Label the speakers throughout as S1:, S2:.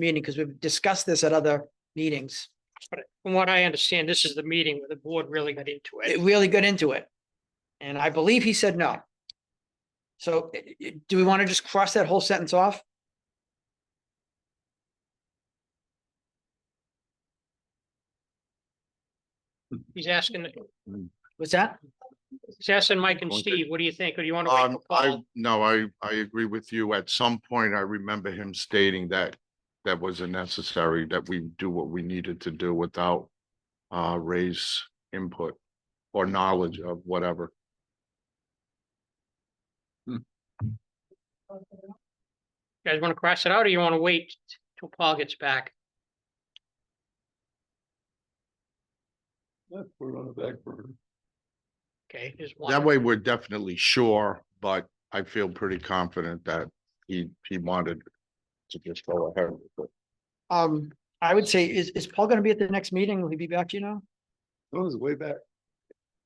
S1: meeting because we've discussed this at other meetings.
S2: But from what I understand, this is the meeting where the board really got into
S1: It
S2: it.
S1: really got into it. And I believe he said no. So eh, eh, do we want to just cross that whole sentence off?
S2: He's asking,
S1: What's that?
S2: he's asking Mike and
S3: Okay.
S2: Steve, what do you think? Or do you want to wait
S3: Um,
S2: for
S3: I,
S2: Paul?
S3: no, I, I agree with you. At some point, I remember him stating that that wasn't necessary, that we do what we needed to do without uh, Ray's input or knowledge of whatever.
S2: You guys want to cross it out or you want to wait till Paul gets back?
S4: Yeah, put it on the back burner.
S2: Okay, there's
S3: That
S2: one.
S3: way, we're definitely sure, but I feel pretty confident that he, he wanted to just go ahead. with it.
S1: Um, I would say, is, is Paul going to be at the next meeting? Will he be back, do you know?
S4: That was way back.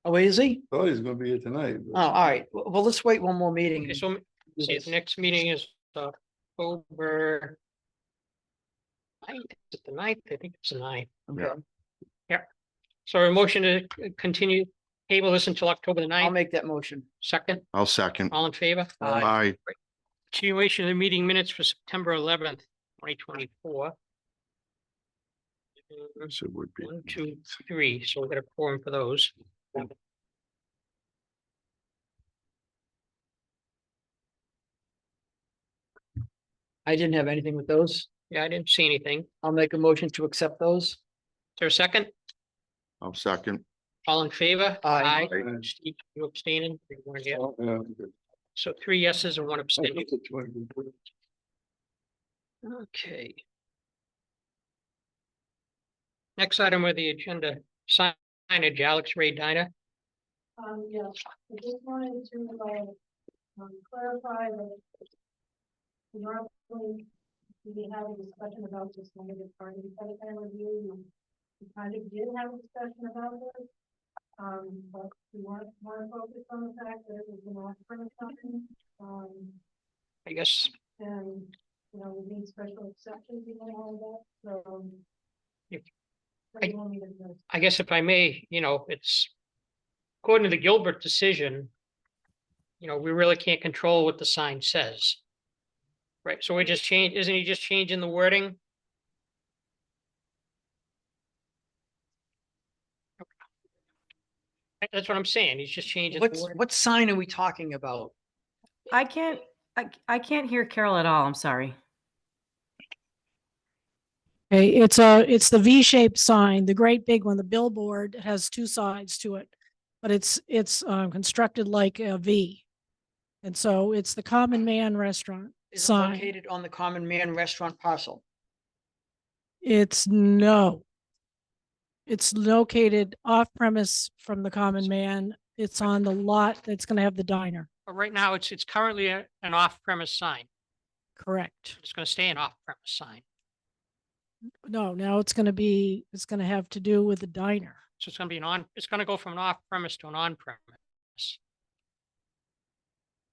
S1: Oh, wait, is he?
S4: Thought he was gonna be here tonight.
S1: Oh, all right. W- Well, let's wait one more meeting.
S2: Okay, So, see, the next meeting is October. I, is it the ninth? I think it's the ninth.
S1: Okay.
S2: So a motion to continue, table this until October the
S1: I'll
S2: ninth,
S1: make that motion.
S2: second,
S3: I'll second.
S2: all in favor?
S3: I,
S2: Continuation of the meeting minutes for September eleventh, twenty twenty-four.
S3: guess it would be.
S2: One, two, three, so we're gonna form for those.
S1: I didn't have anything with those.
S2: Yeah, I didn't see anything. Is
S1: I'll make a motion to accept those.
S2: there a second?
S3: I'll second.
S2: All in favor?
S4: Aye.
S1: Aye.
S2: Steve, You abstaining? You wanna get-
S4: Oh, yeah, I'm good.
S2: So three yeses and one
S4: I
S2: abstention.
S4: looked at you and it was-
S2: Okay. Next item of the agenda, signage, Alex Ray Diner.
S5: Um, yes, I just wanted to, like, um, clarify that. Normally, we had a discussion about this limited party site plan review, and we kind of did have a discussion about this. Um, but we weren't more focused on the fact that it was an off-premise sign, um,
S2: I guess
S5: and, you know, we need special exceptions and all that, so. um,
S2: Yep.
S5: what do you want me to do?
S2: I guess if I may, you know, it's according to the Gilbert decision, you know, we really can't control what the sign says. Right, so we just change, isn't he just changing the wording? That- That's what I'm saying. He's just changing. the
S1: What's,
S2: wording.
S1: what sign are we talking about?
S6: I can't, I, I can't hear Carol at all. I'm sorry.
S7: Okay, it's a, it's the V-shaped sign, the great big one, the billboard has two sides to it. But it's, it's um, constructed like a V. And so it's the Common Man Restaurant
S1: Is it
S7: sign.
S1: located on the Common Man Restaurant parcel?
S7: It's no. It's located off premise from the Common Man. It's on the lot that's gonna have the diner,
S2: But right now, it's, it's currently a- an off-premise sign.
S7: correct?
S2: It's gonna stay an off-premise sign.
S7: No, now it's gonna be, it's gonna have to do with the diner.
S2: So it's gonna be an on, it's gonna go from an off-premise to an on-premise.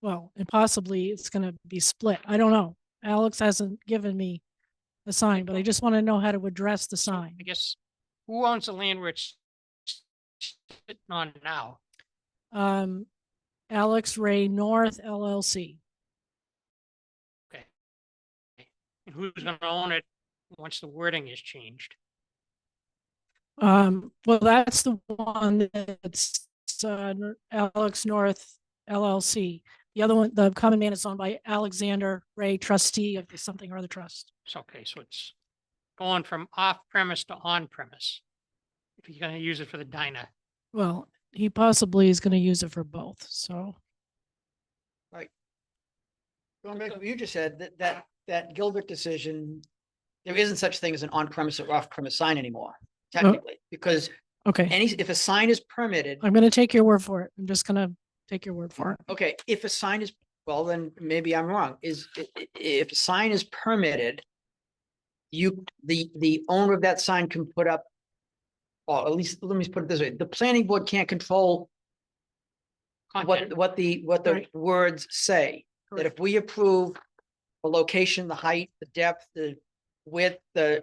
S7: Well, and possibly it's gonna be split. I don't know. Alex hasn't given me the sign, but I just want to know how to address the
S2: So,
S7: sign.
S2: I guess, who owns the land where it's sitting on now?
S7: Um, Alex Ray North LLC.
S2: And who's gonna own it once the wording is changed?
S7: Um, well, that's the one that's uh, N- Alex North LLC. The other one, the common man is owned by Alexander Ray, trustee of the something or other trust.
S2: So, okay, so it's going from off-premise to on-premise. If you're gonna use it for the diner,
S7: Well, he possibly is going to use it for both, so.
S1: Going back to what you just said, that, that, that Gilbert decision, there isn't such thing as an on-premise or off-premise sign anymore, technically, because
S7: Okay,
S1: any, if a sign is permitted,
S7: I'm going to take your word for it. I'm just going to take your word for it.
S1: okay, if a sign is, well, then maybe I'm wrong, is, i- i- if a sign is permitted, you, the, the owner of that sign can put up, or at least, let me put it this way, the planning board can't control
S2: content,
S1: what, what the, what the
S7: Right.
S1: words say. That if we approve the location, the height, the depth, the with the